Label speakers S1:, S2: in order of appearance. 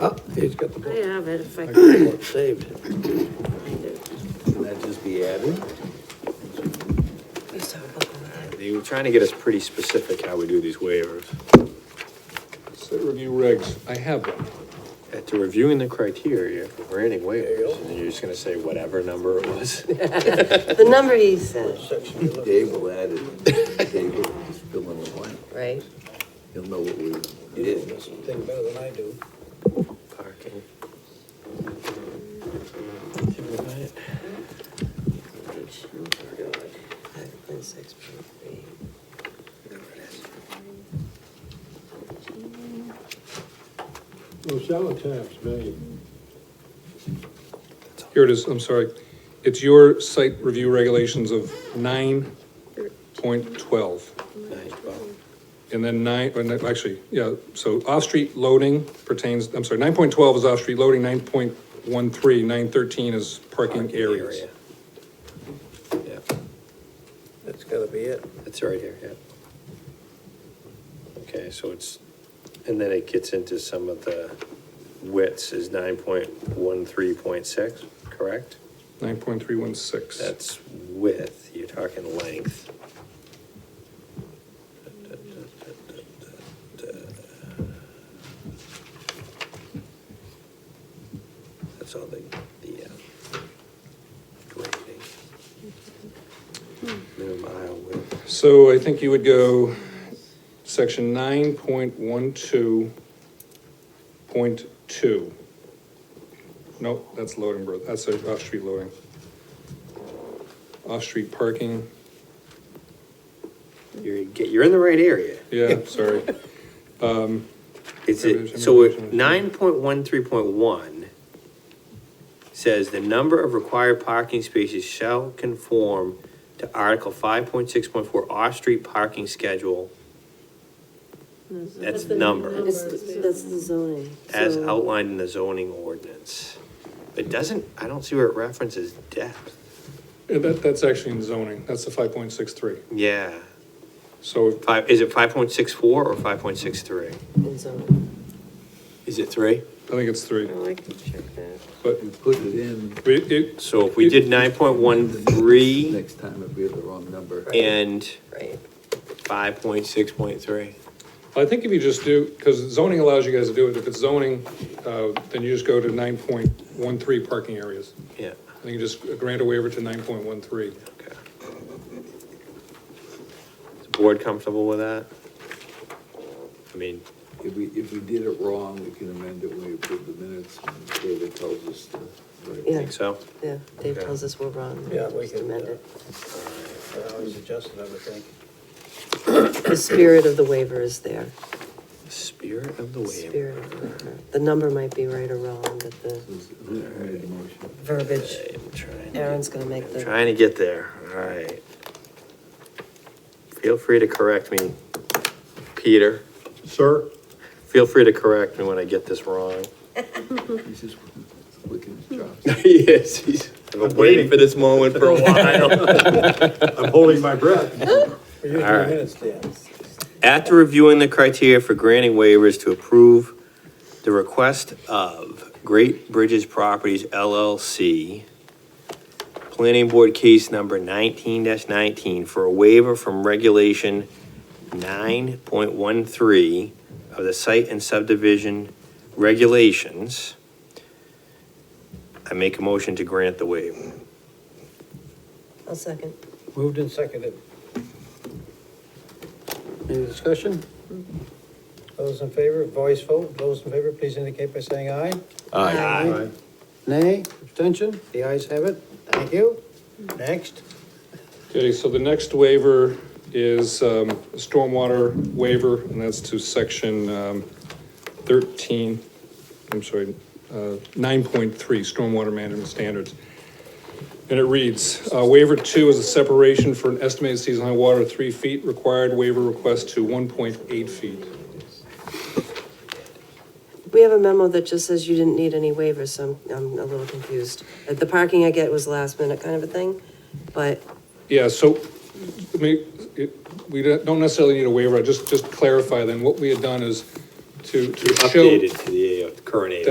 S1: Oh, he's got the
S2: I
S1: book.
S2: have it if I
S1: I got
S2: can
S1: the book saved.
S2: find it.
S3: Can that just be added?
S2: We saw a book on that.
S4: They were trying to get us pretty specific how we do these waivers.
S1: Set review regs, I have them.
S4: After reviewing the criteria for granting waivers, and you're just gonna say whatever number it was.
S2: The number he said,
S3: Dave will add it. Dave will just fill in the blank.
S2: right?
S3: He'll know what we did.
S1: Thing better than I do.
S4: Parking.
S5: Well, shallow tap's valuable.
S1: Here it is, I'm sorry. It's your site review regulations of nine point twelve.
S4: Nice, Bob.
S1: And then nine, or no, actually, yeah, so off-street loading pertains, I'm sorry, nine point twelve is off-street loading, 9.13, 913 is parking areas.
S4: area. Yeah,
S3: That's gotta be it.
S4: it's right here, yeah. Okay, so it's, and then it gets into some of the widths is nine point one three point six, correct?
S1: Nine point three one six.
S4: That's width, you're talking length. That's all the, the, uh, grading. Minimum aisle width.
S1: So I think you would go section nine point one two point two. Nope, that's loading, bro, that's uh, off-street loading. Off-street parking,
S4: You're, get- you're in the right area.
S1: yeah, sorry.
S4: It's, it- so nine point one, three point one says the number of required parking spaces shall conform to Article five point six point four off-street parking schedule That's number.
S2: It's- That's the zoning.
S4: as
S2: so-
S4: outlined in the zoning ordinance. It doesn't, I don't see where it references depth.
S1: Yeah, That, that's actually in zoning, that's the five point six three.
S4: Yeah,
S1: So
S4: five, is it five point six four or five point six three?
S2: in zoning.
S4: Is it three?
S1: I think it's three,
S2: Oh, I can check that.
S1: but
S3: You put it in
S1: it, it,
S4: So if we did nine point one three
S3: next time if we have the wrong number.
S4: and
S2: Right.
S4: five point six point three.
S1: I think if you just do, because zoning allows you guys to do it, if it's zoning, uh, then you just go to nine point one three parking areas.
S4: Yeah,
S1: I think you just grant a waiver to nine point one three.
S4: okay. Is the board comfortable with that? I mean,
S3: If we, if we did it wrong, we can amend it when we approve the minutes. and David tells us to. right.
S4: think
S2: Yeah,
S4: so?
S2: yeah, Dave
S4: Okay.
S2: tells us we're wrong.
S5: Yeah, we
S2: Just
S5: can,
S2: amend
S5: uh,
S2: it.
S5: I always adjusted everything.
S2: The spirit of the waiver is there.
S4: Spirit of
S2: The
S4: the waiver.
S2: Spirit of the waiver. The number might be right or wrong, but the
S3: Who made the motion?
S2: verbiage,
S4: I'm trying to-
S2: Aaron's gonna make
S4: I'm
S2: the.
S4: trying to get there, all right. Feel free to correct me, Peter.
S5: Sir?
S4: Feel free to correct me when I get this wrong.
S3: He's just looking at jobs.
S4: Yes, he's. I've been waiting for this moment for a while.
S5: I'm holding my breath. We're using
S4: All right.
S5: minutes, Dan.
S4: After reviewing the criteria for granting waivers to approve the request of Great Bridges Properties LLC, Planning Board Case Number nineteen nineteen for a waiver from Regulation nine point one three of the Site and Subdivision Regulations, I make a motion to grant the waiver.
S2: I'll second.
S5: Moved and seconded. Any discussion? Those in favor, voice vote. Those in favor, please indicate by saying aye.
S4: Aye.
S5: Nay, abstention? The ayes have it. Thank you. Next.
S1: Okay, so the next waiver is um, a stormwater waiver, and that's to section um, 13, I'm sorry, uh, 9.3, stormwater management standards. And it reads, uh, waiver two is a separation for an estimated season high water of three feet, required waiver request to 1.8 feet.
S2: We have a memo that just says you didn't need any waivers, so I'm, I'm a little confused. Uh, The parking I get was last minute kind of a thing, but
S1: Yeah, so, I mean, it, we don't don't necessarily need a waiver, I just, just clarify then, what we had done is to, to show.
S4: Updated to the uh, current AO.